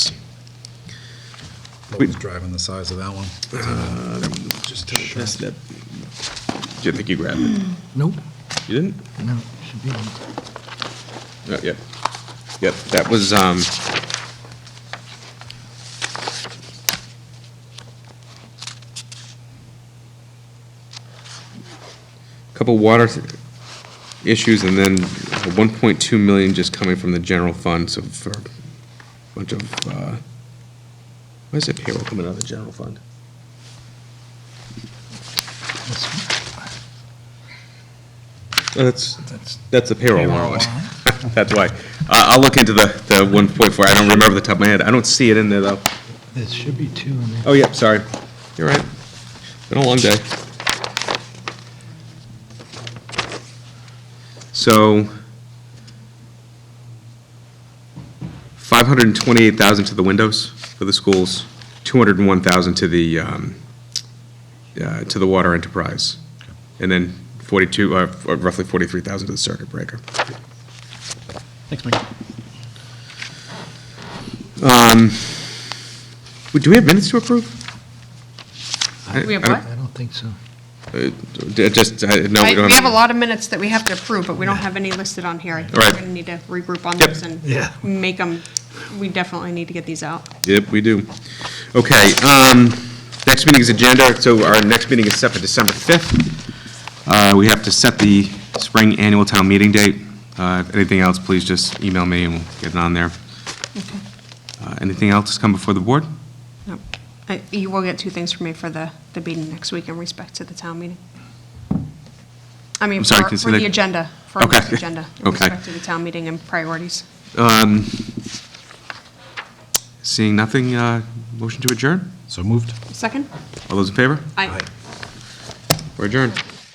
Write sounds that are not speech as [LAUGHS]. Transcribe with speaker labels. Speaker 1: What's driving the size of that one?
Speaker 2: Just That's that.
Speaker 3: Do you think you grabbed it?
Speaker 4: Nope,
Speaker 3: You didn't?
Speaker 4: no, should be. in.
Speaker 3: Uh, Yep. Yep, that was, um, couple water issues and then 1.2 million just coming from the general fund, so for a bunch of, uh, why is it payroll coming out of the general fund?
Speaker 4: That's-
Speaker 3: Oh, That's,
Speaker 4: That's
Speaker 3: That's the payroll
Speaker 4: Payroll
Speaker 3: warrant. [LAUGHS] That's why. I- I'll look into the, the 1.4. I don't remember the top of my head. I don't see it in there, though.
Speaker 4: There should be two in there.
Speaker 3: Oh, yep, sorry. You're right. Been a long day. So, 528,000 to the windows for the schools, 201,000 to the, um, uh, to the water enterprise, and then 42, uh, or roughly 43,000 to the circuit breaker.
Speaker 4: Thanks, Mike.
Speaker 3: Wait, Do we have minutes to approve?
Speaker 5: We have
Speaker 3: I don't-
Speaker 5: what?
Speaker 4: I don't think so.
Speaker 3: Uh, d- Just, uh, no, we
Speaker 5: I-
Speaker 3: don't have.
Speaker 5: We have a lot of minutes that we have to approve, but we don't have any listed on here. I think
Speaker 3: Right.
Speaker 5: we're going to need to regroup on
Speaker 3: Yep.
Speaker 5: those and
Speaker 4: Yeah.
Speaker 5: make them, we definitely need to get these out.
Speaker 3: Yep, we do. Okay, um, next meeting's agenda, so our next meeting is set for December 5th. Uh, we have to set the spring annual town meeting date. Uh, if anything else, please just email me and we'll get it on there. Uh, anything else come before the board?
Speaker 5: Yep. Uh, You will get two things from me for the, the meeting next week in respect to the town meeting. I mean,
Speaker 3: I'm sorry,
Speaker 5: for
Speaker 3: can you say
Speaker 5: for
Speaker 3: that-
Speaker 5: the agenda, for
Speaker 3: Okay.
Speaker 5: the agenda, in
Speaker 3: Okay.
Speaker 5: respect to the town meeting and priorities.
Speaker 3: Seeing nothing, uh, motion to adjourn?
Speaker 1: So moved.
Speaker 5: Second?
Speaker 3: All those in favor?
Speaker 5: Aye.
Speaker 3: We're adjourned.